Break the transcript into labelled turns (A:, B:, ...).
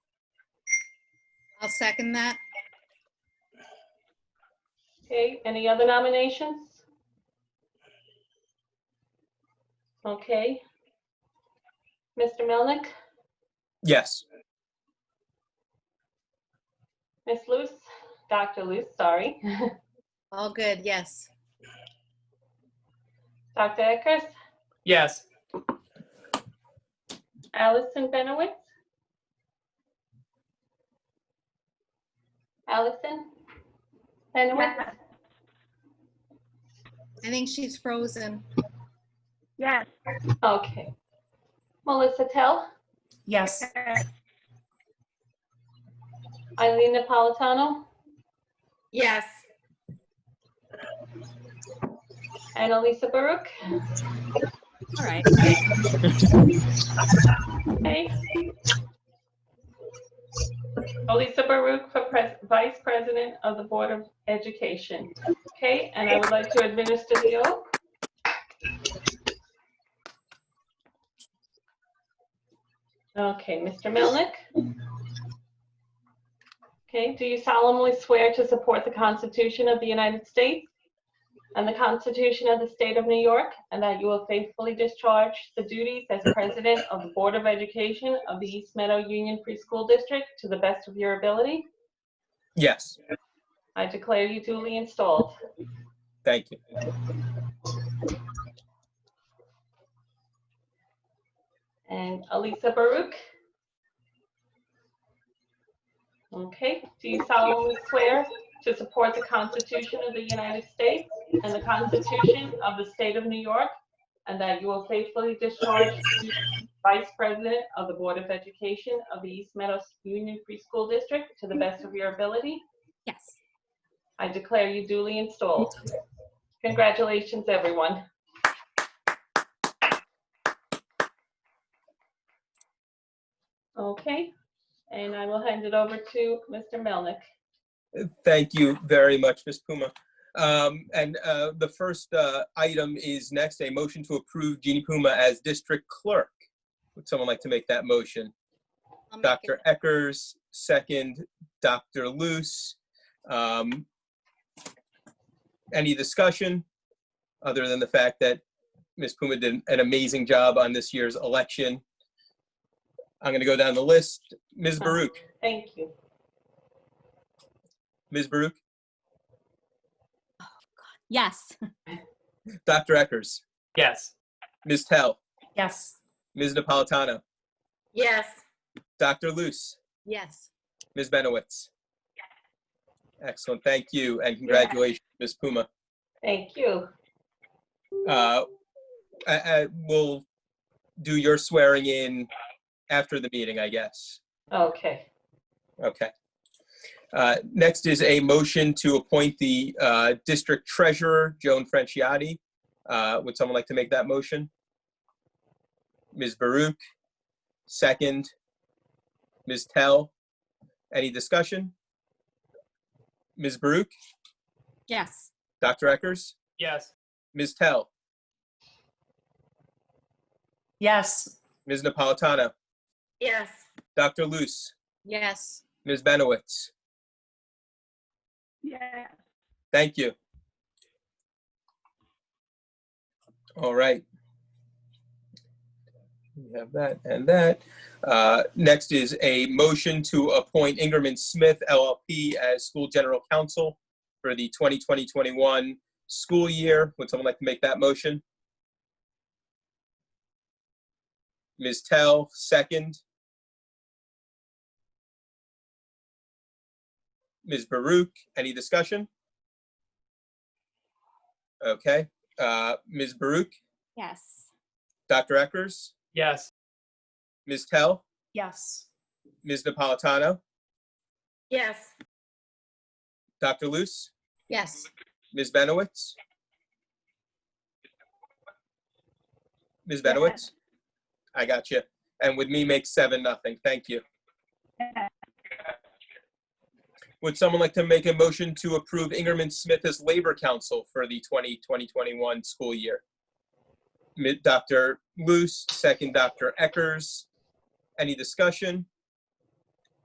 A: I'll second that.
B: Okay, any other nominations? Okay. Mr. Melnick,
C: Yes.
B: Miss Luce, Dr. Luce, sorry.
A: All good, yes.
B: Dr. Eckers,
C: Yes.
B: Allison Benowitz? Allison? Benowitz?
A: I think she's frozen.
D: Yes.
B: Okay. Melissa Tell,
E: Yes.
B: Eileen Napolitano,
E: Yes.
B: and Elisa Baruch.
E: All right.
B: Okay. Elisa Baruch for pres- Vice President of the Board of Education. Okay, and I would like to administer the oath. Okay, Mr. Melnick. Okay, do you solemnly swear to support the Constitution of the United States and the Constitution of the State of New York, and that you will faithfully discharge the duties as President of the Board of Education of the East Meadow Union Free School District to the best of your ability.
C: Yes.
B: I declare you duly installed.
C: Thank you.
B: And Alisa Baruch. Okay, do you solemnly swear to support the Constitution of the United States and the Constitution of the State of New York, and that you will faithfully discharge the Vice President of the Board of Education of the East Meadows Union Free School District to the best of your ability?
E: Yes.
B: I declare you duly installed. Congratulations, everyone. Okay, and I will hand it over to Mr. Melnick.
C: Thank you very much, Ms. Puma. Um, And uh, the first uh, item is next, a motion to approve Jeannie Puma as district clerk. Would someone like to make that motion?
A: I'll make it.
C: Dr. Eckers, second, Dr. Luce. Um, Any discussion, other than the fact that Ms. Puma did an amazing job on this year's election? I'm going to go down the list. Ms. Baruch,
B: Thank you.
C: Ms. Baruch,
E: Yes.
C: Dr. Eckers,
F: Yes.
C: Ms. Tell,
E: Yes.
C: Ms. Napolitano,
E: Yes.
C: Dr. Luce,
A: Yes,
C: Ms. Benowitz. Excellent, thank you, and congratulations, Ms. Puma.
B: Thank you.
C: Uh, I, I will do your swearing in after the meeting, I guess.
B: Okay.
C: Okay. Uh, Next is a motion to appoint the uh, District Treasurer, Joan Franciotti. Uh, Would someone like to make that motion? Ms. Baruch, second. Ms. Tell, any discussion? Ms. Baruch,
E: Yes.
C: Dr. Eckers,
F: Yes.
C: Ms. Tell,
F: Yes.
C: Ms. Napolitano,
E: Yes.
C: Dr. Luce,
A: yes,
C: Ms. Benowitz.
D: Yes.
C: Thank you. All right. We have that and that. Uh, Next is a motion to appoint Ingerman Smith LLP as school general counsel for the 2020-21 school year. Would someone like to make that motion? Ms. Tell, second. Ms. Baruch, any discussion? Okay, uh, Ms. Baruch,
E: Yes.
C: Dr. Eckers,
F: Yes.
C: Ms. Tell,
E: Yes.
C: Ms. Napolitano,
E: Yes.
C: Dr. Luce,
A: yes,
C: Ms. Benowitz? Ms. Benowitz? I got you. And with me makes seven, nothing. Thank you.
D: Yes.
C: Would someone like to make a motion to approve Ingerman Smith as labor counsel for the 2020-2021 school year? Mi- Dr. Luce, second Dr. Eckers. Any discussion?